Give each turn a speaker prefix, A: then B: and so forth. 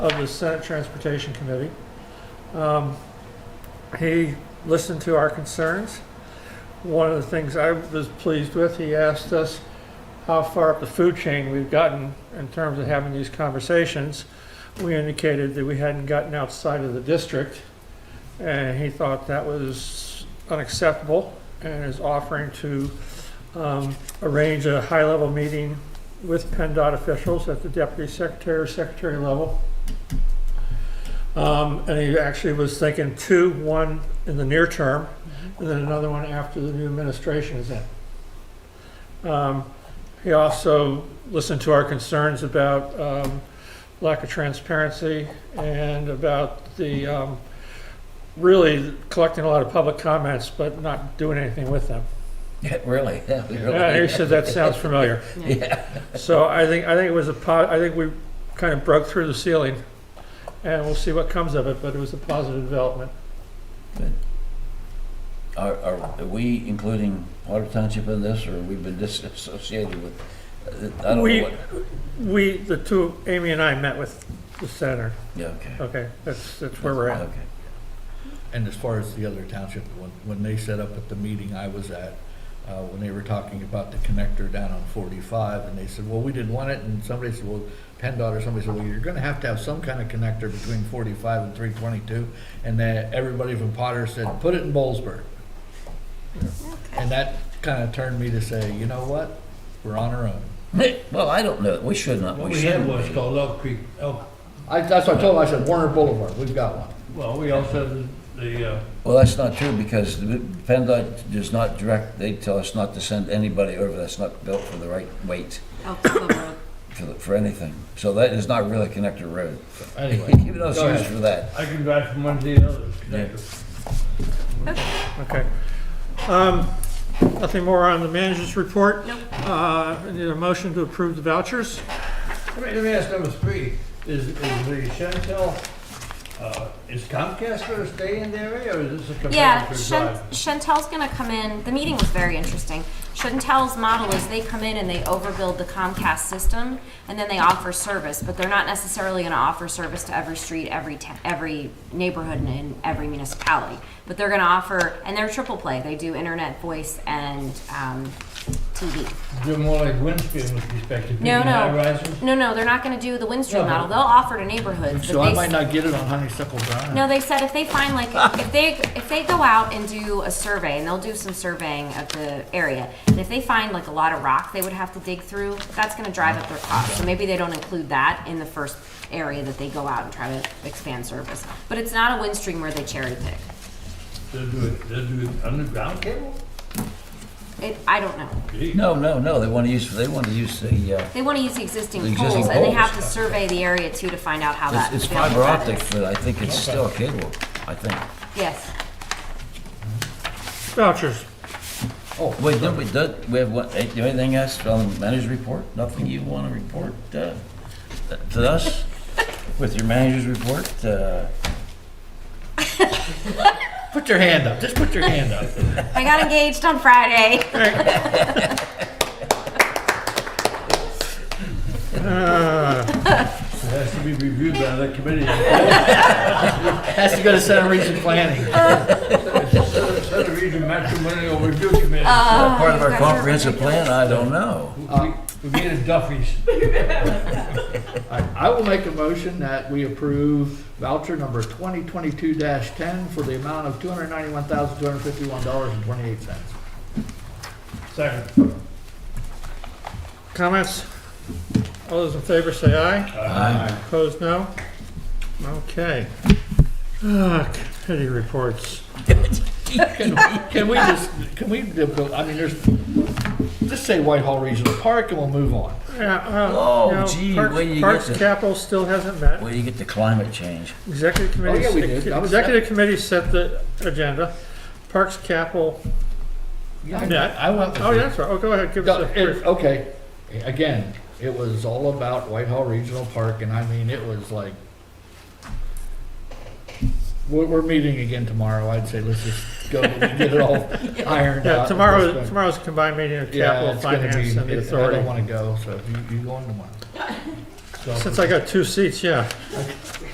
A: of the Senate Transportation Committee. Um, He listened to our concerns. One of the things I was pleased with, he asked us how far up the food chain we've gotten in terms of having these conversations. We indicated that we hadn't gotten outside of the district, and he thought that was unacceptable and is offering to um, arrange a high-level meeting with PennDOT officials at the deputy secretary or secretary level. Um, and he actually was thinking two, one in the near term, and then another one after the new administration is in. Um, he also listened to our concerns about, um, lack of transparency and about the, um, really collecting a lot of public comments, but not doing anything with them.
B: Yeah, really? Yeah, we really-
A: Yeah, he said that sounds familiar.
B: Yeah.
A: So I think, I think it was a po, I think we kind of broke through the ceiling, and we'll see what comes of it, but it was a positive development.
B: Are, are are we including Otter Township in this, or we've been disassociated with, uh, I don't
A: We-
B: know what.
A: We, the two, Amy and I met with the center.
B: Yeah, okay.
A: Okay, that's, that's Uh, where we're at.
B: Okay.
C: And as far as the other township, when, when they set up at the meeting I was at, uh, when they were talking about the connector down on forty-five, and they said, well, we didn't want it, and somebody said, well, PennDOT or somebody said, well, you're gonna have to have some kind of connector between forty-five and three twenty-two, and that, everybody from Potter said, put it in Bollesburg. And that kinda turned me to say, you know what, we're on our own.
B: Hey, Well, I don't know, we should not,
D: What
B: we
D: we had
B: shouldn't.
D: was
B: be.
D: called Elk Creek, Elk,
C: I, that's what I told them, I said, Warner Boulevard, we've got one.
D: well, we also had the, uh,
B: Well, that's not true, because the PennDOT does not direct, they tell us not to send anybody over that's not built for the right weight,
E: Elk Club Road.
B: for, the- for anything. So that is not really a connector road.
D: anyway,
B: Even though it's
D: Go
B: used
D: ahead.
B: for that.
D: I can drive from one to the other. connector.
A: Okay. Um, Nothing more on the manager's report?
E: Nope.
A: Uh, I Need a motion to approve the vouchers?
D: Let me, let me ask number three, is, is the Chantel, uh, is Comcast gonna stay in the area, or is this a
E: Yeah,
D: competitor
E: Chan-
D: drive?
E: Chantel's gonna come in, the meeting was very interesting. Chantel's model is they come in and they overbuild the Comcast system, and then they offer service, but they're not necessarily gonna offer service to every street, every ta- every neighborhood, and in every municipality. But they're gonna offer, and they're triple play, they do internet, voice, and, um, TV.
D: They're more like Windstream with respect to
E: No,
D: being high
E: no,
D: rises.
E: no, no, they're not gonna do the Windstream
D: No.
E: model, they'll offer to neighborhoods. but
C: So I
E: they
C: might
E: s-
C: not get it on Honeysuckle Drive.
E: No, they said if they find like if they if they go out and do a survey and they'll do some surveying of the area and if they find like a lot of rock they would have to dig through that's going to drive up their cost so maybe they don't include that in the first area that they go out and try to expand service but it's not a wind stream where they cherry pick
D: They'll do it, they'll do it underground cable?
E: it I don't know
D: Gee.
B: No, no, no, they want to use, they want to use the, uh,
E: they want to use the existing,
B: The
E: poles,
B: existing
E: and they have to
B: poles.
E: survey the area too to find out how that
B: it's it's
E: available
B: fiber
E: that
B: optic,
E: is.
B: but I think it's still cable, I think.
E: yes
A: Vouchers.
B: Oh, wait, don't we, do we have what, eh, do anything else from the manager's report? Nothing you want to report uh, to us with your manager's report? uh,
C: Put your hand up, just put your hand up.
E: I got engaged on Friday
D: It has to be reviewed by the committee.
C: Has to go to Center Region Planning.
D: Center Region Matrimonial Review Committee.
E: Uh,
B: That part of
E: you
B: our
E: guys are
B: comprehensive plan, I don't know.
D: We, we made a Duffy's.
C: I I will make a motion that we approve voucher number 2022-10 for the amount of $291,251.28.
D: Second.
A: Comments? All those in favor say aye.
B: Aye.
A: Opposed, no? Okay. Ah, Committee reports.
C: Can can we just, can we, do- I mean, there's, just say Whitehall Regional Park and we'll move on.
A: Yeah, uh,
B: Oh,
A: you know,
B: gee,
A: Parks-
B: when you get
A: Parks
B: to-
A: Capital still hasn't met.
B: Where do you get the climate change?
A: Executive
B: Oh,
A: committee.
C: yeah, we did. I was-
A: Executive committee set the agenda. Parks Capital,
C: Yeah, I went with
A: oh,
C: you.
A: yeah, that's right. Oh, go ahead, give
C: No,
A: us a
C: it- uh, Okay, again, it was all about Whitehall Regional Park, and I mean, it was like, we're, we're meeting again tomorrow, I'd say let's just go and get it all ironed
A: Yeah,
C: out. at this
A: tomorrow,
C: point.
A: tomorrow's combined meeting of
C: Yeah,
A: capital,
C: it's gonna be,
A: finance, and the
C: it- I don't
A: authority.
C: wanna go, so you, you going tomorrow?
A: Since I got two seats, yeah.